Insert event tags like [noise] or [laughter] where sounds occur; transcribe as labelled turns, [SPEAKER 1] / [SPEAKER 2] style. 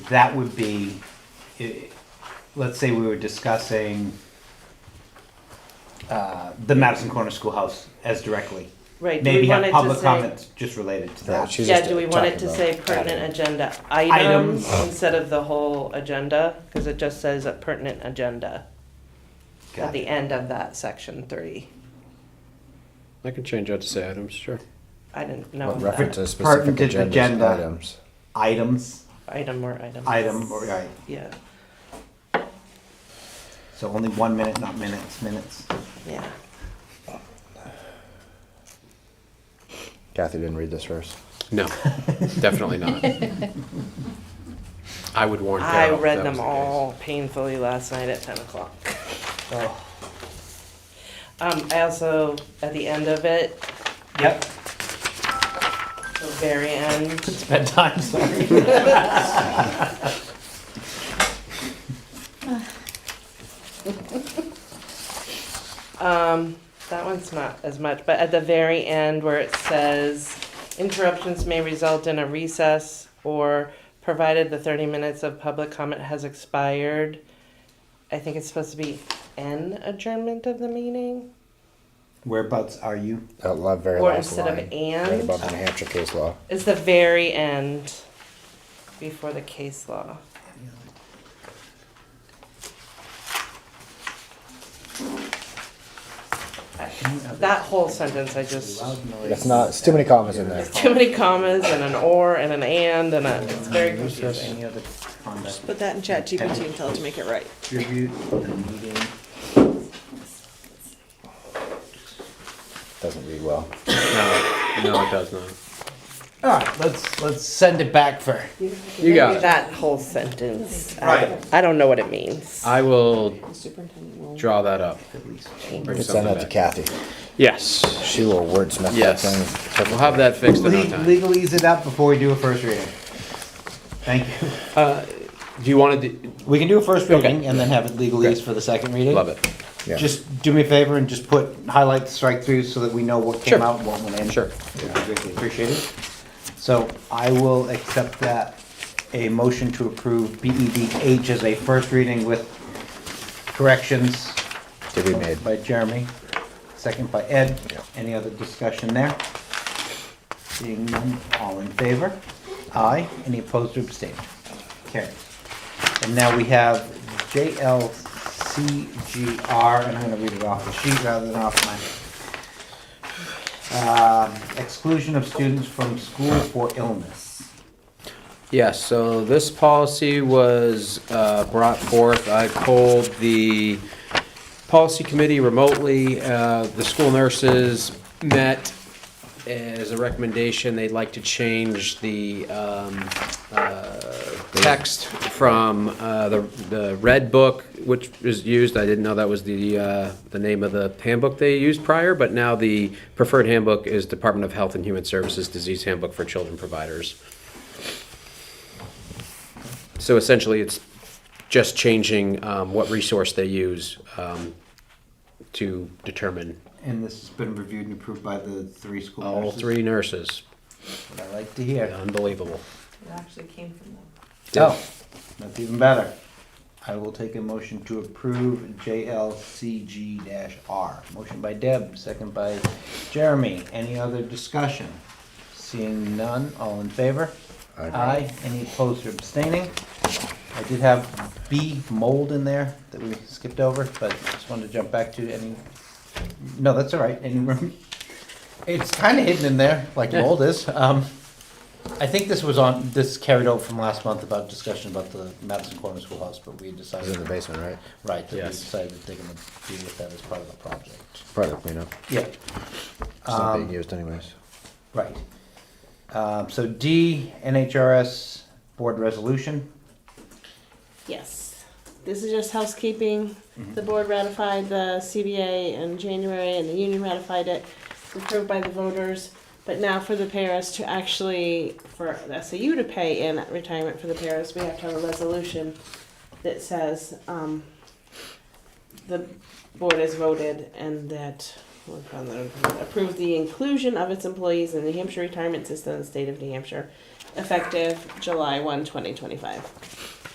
[SPEAKER 1] that would be, i- let's say we were discussing uh, the Madison Corner Schoolhouse as directly.
[SPEAKER 2] Right, do
[SPEAKER 1] Maybe
[SPEAKER 2] we want
[SPEAKER 1] have
[SPEAKER 2] it to
[SPEAKER 1] public
[SPEAKER 2] say?
[SPEAKER 1] comments just related to
[SPEAKER 3] Right,
[SPEAKER 1] that.
[SPEAKER 3] she's
[SPEAKER 2] Yeah,
[SPEAKER 3] just
[SPEAKER 2] do we want it
[SPEAKER 3] talking
[SPEAKER 2] to
[SPEAKER 3] about
[SPEAKER 2] say
[SPEAKER 3] adding.
[SPEAKER 2] pertinent agenda
[SPEAKER 1] Items.
[SPEAKER 2] items instead of the whole agenda? Because it just says a pertinent agenda at
[SPEAKER 1] Got
[SPEAKER 2] the
[SPEAKER 1] it.
[SPEAKER 2] end of that section three.
[SPEAKER 4] I can change that to say items, sure.
[SPEAKER 2] I didn't know
[SPEAKER 3] With
[SPEAKER 2] if
[SPEAKER 3] reference
[SPEAKER 2] that
[SPEAKER 3] to specific
[SPEAKER 1] Pertinent
[SPEAKER 3] agenda
[SPEAKER 1] agenda.
[SPEAKER 3] items.
[SPEAKER 1] Items,
[SPEAKER 2] item or item.
[SPEAKER 1] item, or, right,
[SPEAKER 2] Yeah,
[SPEAKER 1] so only one minute, not minutes, minutes.
[SPEAKER 2] yeah.
[SPEAKER 3] Kathy didn't read this first.
[SPEAKER 4] No, definitely not. I would warn
[SPEAKER 2] I
[SPEAKER 4] Carol. if
[SPEAKER 2] read
[SPEAKER 4] that
[SPEAKER 2] them
[SPEAKER 4] was the
[SPEAKER 2] all painfully last night at ten o'clock.
[SPEAKER 1] Oh,
[SPEAKER 2] Um, I also, at the end of it,
[SPEAKER 1] Yep,
[SPEAKER 2] the very
[SPEAKER 1] [laughs]
[SPEAKER 2] end,
[SPEAKER 1] it's bedtime, sorry.
[SPEAKER 2] um, that one's not as much, but at the very end where it says, interruptions may result in a recess or provided the thirty minutes of public comment has expired. I think it's supposed to be an adjournment of the meeting,
[SPEAKER 1] Whereabouts are you?
[SPEAKER 3] That la- very
[SPEAKER 2] or
[SPEAKER 3] last
[SPEAKER 2] instead of
[SPEAKER 3] line. Right
[SPEAKER 2] and,
[SPEAKER 3] above the New Hampshire case law.
[SPEAKER 2] it's the very end before the case law. That whole sentence, I just,
[SPEAKER 3] That's not, it's too many commas in there.
[SPEAKER 2] too many commas and an or and an and and a, it's very
[SPEAKER 1] Recess,
[SPEAKER 2] confusing.
[SPEAKER 1] Any other conduct?
[SPEAKER 5] Put that in chat GPT and tell it to make it right.
[SPEAKER 1] Distribute the meeting.
[SPEAKER 3] Doesn't read well.
[SPEAKER 4] case. No, no, it does not.
[SPEAKER 1] All right, let's, let's send it back for.
[SPEAKER 4] You got it.
[SPEAKER 2] That whole sentence, I,
[SPEAKER 1] Right.
[SPEAKER 2] I don't know what it means.
[SPEAKER 4] I will
[SPEAKER 5] Superintendent will.
[SPEAKER 4] draw that up.
[SPEAKER 1] At least.
[SPEAKER 4] and
[SPEAKER 3] You
[SPEAKER 4] Bring
[SPEAKER 3] could send
[SPEAKER 4] something
[SPEAKER 3] that to
[SPEAKER 4] back.
[SPEAKER 3] Kathy.
[SPEAKER 4] Yes,
[SPEAKER 3] She will wordsmith that
[SPEAKER 4] Yes.
[SPEAKER 3] thing.
[SPEAKER 4] we'll have that fixed in no
[SPEAKER 1] Le-
[SPEAKER 4] time.
[SPEAKER 1] Legal ease it up before we do a first reading. Thank you. [laughs]
[SPEAKER 4] Do you want to,
[SPEAKER 1] We can do a first reading and then have it legal ease for the second reading.
[SPEAKER 4] love it.
[SPEAKER 3] Yeah.
[SPEAKER 1] Just do me a favor and just put highlight strike through so that we know what came
[SPEAKER 4] Sure.
[SPEAKER 1] out and what went in.
[SPEAKER 4] Sure.
[SPEAKER 1] Would be Greatly appreciated. So I will accept that, a motion to approve BEDH as a first reading with corrections
[SPEAKER 3] To be made.
[SPEAKER 1] by Jeremy, second by Ed.
[SPEAKER 3] Yeah.
[SPEAKER 1] Any other discussion there? Seeing none, all in favor? Aye. Any opposed or abstained? Carried. And now we have JLCGR, and I'm gonna read it off the sheet rather than off mine. Um, Exclusion of students from school for illness.
[SPEAKER 4] Yes, so this policy was uh, brought forth, I polled the policy committee remotely, Uh, the school nurses met as a recommendation, they'd like to change the um, uh, text from uh, the the red book, which is used, I didn't know that was the, uh, the name of the handbook they used prior, but now the preferred handbook is Department of Health and Human Services Disease Handbook for Children Providers. So essentially, it's just changing um, what resource they use um, to determine
[SPEAKER 1] And this has been reviewed and approved by the three school
[SPEAKER 4] all
[SPEAKER 1] nurses.
[SPEAKER 4] three nurses.
[SPEAKER 1] What I like to hear.
[SPEAKER 4] Unbelievable.
[SPEAKER 5] It actually came from them.
[SPEAKER 1] Oh, that's even better. I will take a motion to approve JLCG R. Motion by Deb, second by Jeremy. Any other discussion? Seeing none, all in favor?
[SPEAKER 3] Aye.
[SPEAKER 1] Any opposed or abstaining? I did have B mold in there that we skipped over, but just wanted to jump back to any, no, that's all right, any room. It's kind of hidden in there, like
[SPEAKER 4] Yeah.
[SPEAKER 1] mold is. Um, I think this was on, this carried over from last month about discussion about the Madison Corner Schoolhouse, but we
[SPEAKER 3] It's in
[SPEAKER 1] decided,
[SPEAKER 3] the basement, right?
[SPEAKER 1] right, that we
[SPEAKER 4] Yes.
[SPEAKER 1] decided that they're gonna deal with that as part of the project.
[SPEAKER 3] Part of the cleanup.
[SPEAKER 1] Yeah,
[SPEAKER 3] It's not being
[SPEAKER 1] Um,
[SPEAKER 3] used anyways.
[SPEAKER 1] right. Um, so D, NHRS Board Resolution.
[SPEAKER 5] Yes. This is just housekeeping. The board ratified the CBA in January and the union ratified it, approved by the voters. But now for the paras to actually, for the SAU to pay in retirement for the paras, we have to have a resolution that says, um, the board has voted and that approved the inclusion of its employees in the New Hampshire retirement system in the state of New Hampshire
[SPEAKER 2] effective July 1, 2025.